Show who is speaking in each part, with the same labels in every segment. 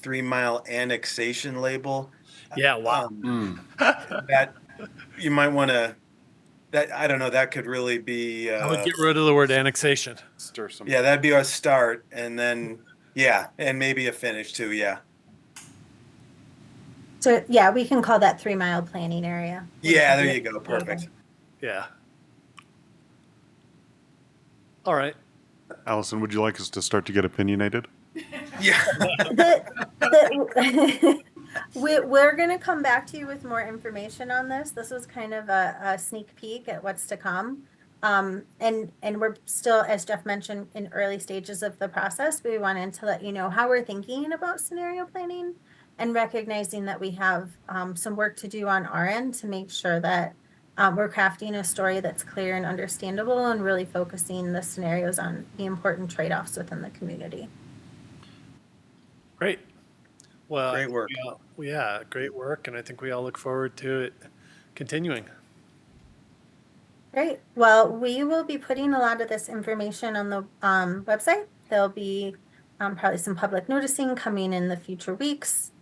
Speaker 1: three mile annexation label.
Speaker 2: Yeah, wow.
Speaker 1: Um,
Speaker 3: Mm.
Speaker 1: that you might want to. That I don't know. That could really be.
Speaker 2: I
Speaker 1: Uh,
Speaker 2: would get rid of the word annexation.
Speaker 3: Stir some.
Speaker 1: yeah, that'd be our start, and then yeah, and maybe a finish too. Yeah,
Speaker 4: So, yeah, we can call that three mile planning area.
Speaker 1: yeah. There you go. Perfect.
Speaker 2: Yeah. All right.
Speaker 3: Allison, would you like us to start to get opinionated?
Speaker 1: Yeah.
Speaker 4: The, the, we, we're going to come back to you with more information on this. This was kind of a, a sneak peek at what's to come. Um, and, and we're still, as Jeff mentioned, in early stages of the process. We wanted to let you know how we're thinking about scenario planning and recognizing that we have um, some work to do on our end to make sure that um, we're crafting a story that's clear and understandable and really focusing the scenarios on the important trade offs within the community.
Speaker 2: Great. Well,
Speaker 1: Great work.
Speaker 2: we all- yeah, great work. And I think we all look forward to it continuing.
Speaker 4: Great. Well, we will be putting a lot of this information on the um, website. There'll be um, probably some public noticing coming in the future weeks.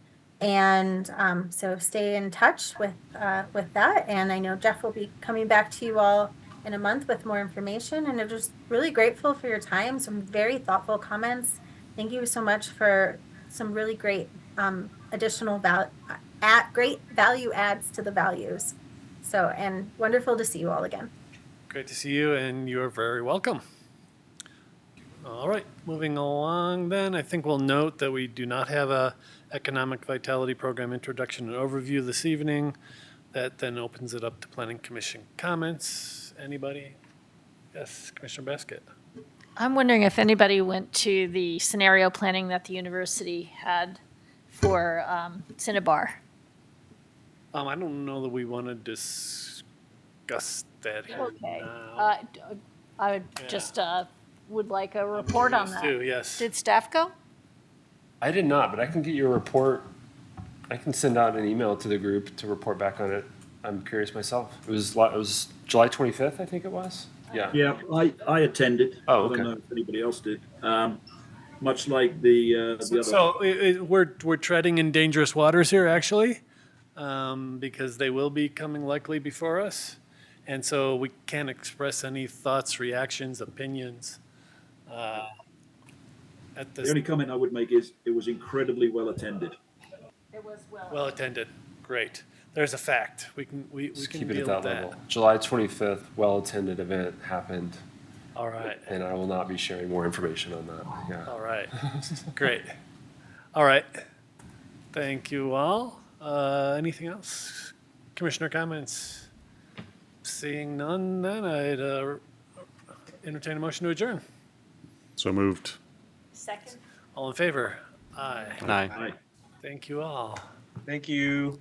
Speaker 4: And um, so stay in touch with uh, with that. And I know Jeff will be coming back to you all in a month with more information. And I'm just really grateful for your time. Some very thoughtful comments. Thank you so much for some really great um, additional val- at great value adds to the values. So, and wonderful to see you all again.
Speaker 2: Great to see you, and you are very welcome. All right, moving along then, I think we'll note that we do not have a economic vitality program introduction and overview this evening. That then opens it up to planning commission comments. Anybody? Yes, Commissioner Basket.
Speaker 5: I'm wondering if anybody went to the scenario planning that the university had for um, Cinnabar.
Speaker 2: Um, I don't know that we want to discuss that here
Speaker 5: Okay.
Speaker 2: now.
Speaker 5: Uh, d- I would just uh, would like a report on that.
Speaker 2: Too, yes.
Speaker 5: Did staff go?
Speaker 6: I did not, but I can get your report. I can send out an email to the group to report back on it. I'm curious myself. It was li- it was July 25th, I think it was.
Speaker 2: Uh,
Speaker 6: Yeah.
Speaker 7: Yeah, I, I attended.
Speaker 6: Oh,
Speaker 7: I
Speaker 6: okay.
Speaker 7: don't know if anybody else did. Um, much like the, uh, the other.
Speaker 2: So i i we're we're treading in dangerous waters here, actually, um, because they will be coming likely before us, and so we can't express any thoughts, reactions, opinions. Uh, at
Speaker 7: The
Speaker 2: this,
Speaker 7: only comment I would make is it was incredibly well attended.
Speaker 5: It was
Speaker 2: well attended, great. There's a fact. We can we, we
Speaker 6: Just
Speaker 2: can
Speaker 6: keep it
Speaker 2: deal
Speaker 6: at that
Speaker 2: with that.
Speaker 6: level. July 25th, well attended event happened,
Speaker 2: All right.
Speaker 6: and I will not be sharing more information on that. Yeah.
Speaker 2: All right. Great. All right. Thank you all. Uh, anything else? Commissioner comments? Seeing none, then I'd uh, entertain a motion to adjourn.
Speaker 3: So moved.
Speaker 5: Second.
Speaker 2: All in favor? Aye.
Speaker 7: Aye.
Speaker 2: Thank you all.
Speaker 1: Thank you.